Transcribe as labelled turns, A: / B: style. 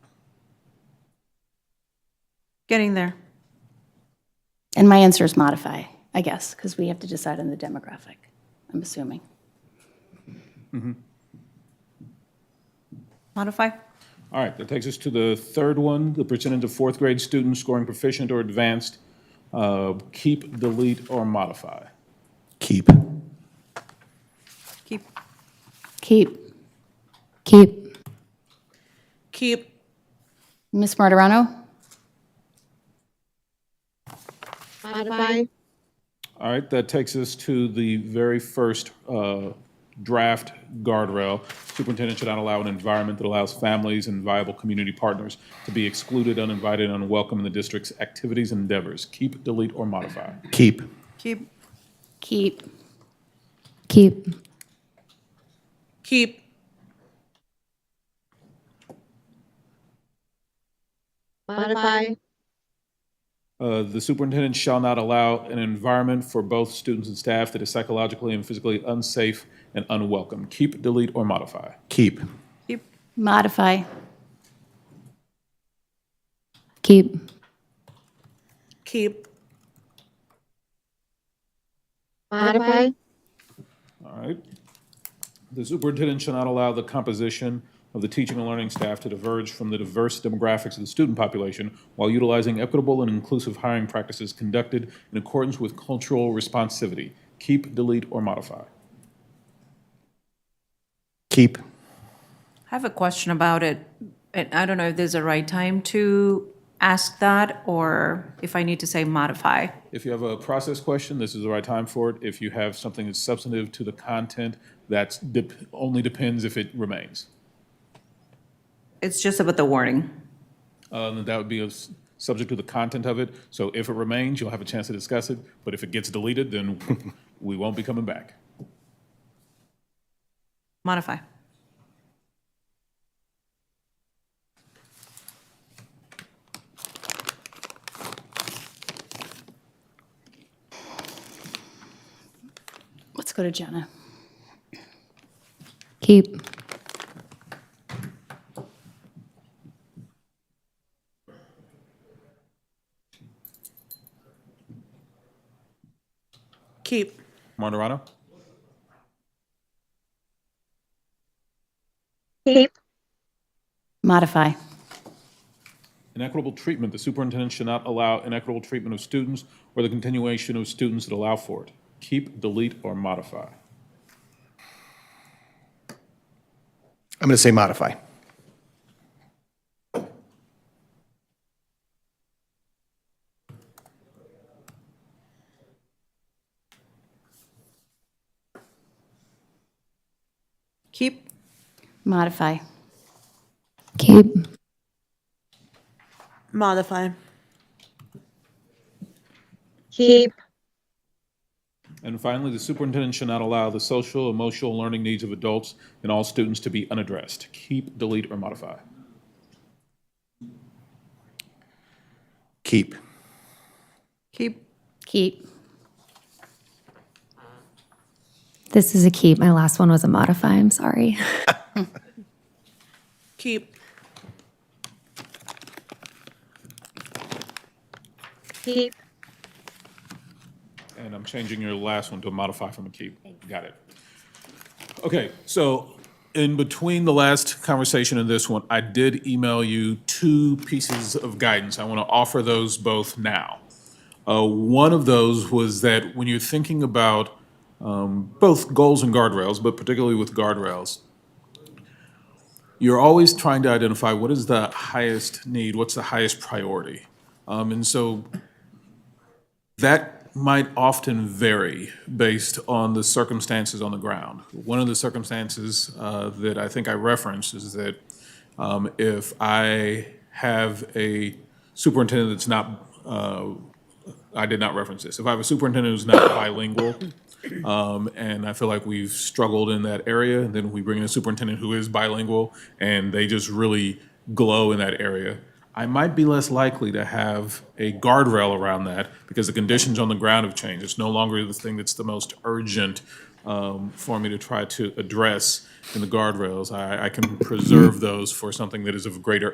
A: Getting there.
B: And my answer is modify, I guess, because we have to decide on the demographic, I'm assuming.
A: Modify?
C: All right, that takes us to the third one, the percentage of fourth grade students scoring proficient or advanced. Uh, Keep, delete, or modify.
D: Keep.
A: Keep.
B: Keep. Keep.
E: Keep.
B: Ms. Martirano?
E: Modify.
C: All right, that takes us to the very first uh, draft guardrail. Superintendent should not allow an environment that allows families and viable community partners to be excluded, uninvited, and unwelcome in the district's activities and endeavors. Keep, delete, or modify.
D: Keep.
A: Keep.
B: Keep. Keep.
E: Keep. Modify.
C: Uh, The superintendent shall not allow an environment for both students and staff that is psychologically and physically unsafe and unwelcome. Keep, delete, or modify.
D: Keep.
A: Keep.
B: Modify. Keep.
E: Keep. Modify.
C: All right. The superintendent shall not allow the composition of the teaching and learning staff to diverge from the diverse demographics of the student population while utilizing equitable and inclusive hiring practices conducted in accordance with cultural responsivity. Keep, delete, or modify.
D: Keep.
A: I have a question about it, and I don't know if there's a right time to ask that, or if I need to say modify.
C: If you have a process question, this is the right time for it. If you have something that's substantive to the content, that's dep- only depends if it remains.
A: It's just about the wording.
C: Um, That would be a s- subject to the content of it. So if it remains, you'll have a chance to discuss it, but if it gets deleted, then we won't be coming back.
A: Modify.
B: Let's go to Jenna. Keep.
E: Keep.
C: Martorano?
E: Keep.
B: Modify.
C: Inequitable treatment, the superintendent should not allow inequitable treatment of students or the continuation of students that allow for it. Keep, delete, or modify.
D: I'm going to say modify.
A: Keep.
B: Modify. Keep.
E: Modify. Keep.
C: And finally, the superintendent should not allow the social, emotional learning needs of adults and all students to be unaddressed. Keep, delete, or modify.
D: Keep.
A: Keep.
B: Keep.
F: This is a keep. My last one was a modify. I'm sorry.
E: Keep. Keep.
C: And I'm changing your last one to a modify from a keep. Got it. Okay, so in between the last conversation and this one, I did email you two pieces of guidance. I want to offer those both now. Uh, One of those was that when you're thinking about um, both goals and guardrails, but particularly with guardrails, you're always trying to identify what is the highest need, what's the highest priority. Um, And so that might often vary based on the circumstances on the ground. One of the circumstances uh, that I think I referenced is that um, if I have a superintendent that's not, uh, I did not reference this, if I have a superintendent who's not bilingual, um, and I feel like we've struggled in that area, then we bring in a superintendent who is bilingual, and they just really glow in that area, I might be less likely to have a guardrail around that because the conditions on the ground have changed. It's no longer the thing that's the most urgent um, for me to try to address in the guardrails. I, I can preserve those for something that is of greater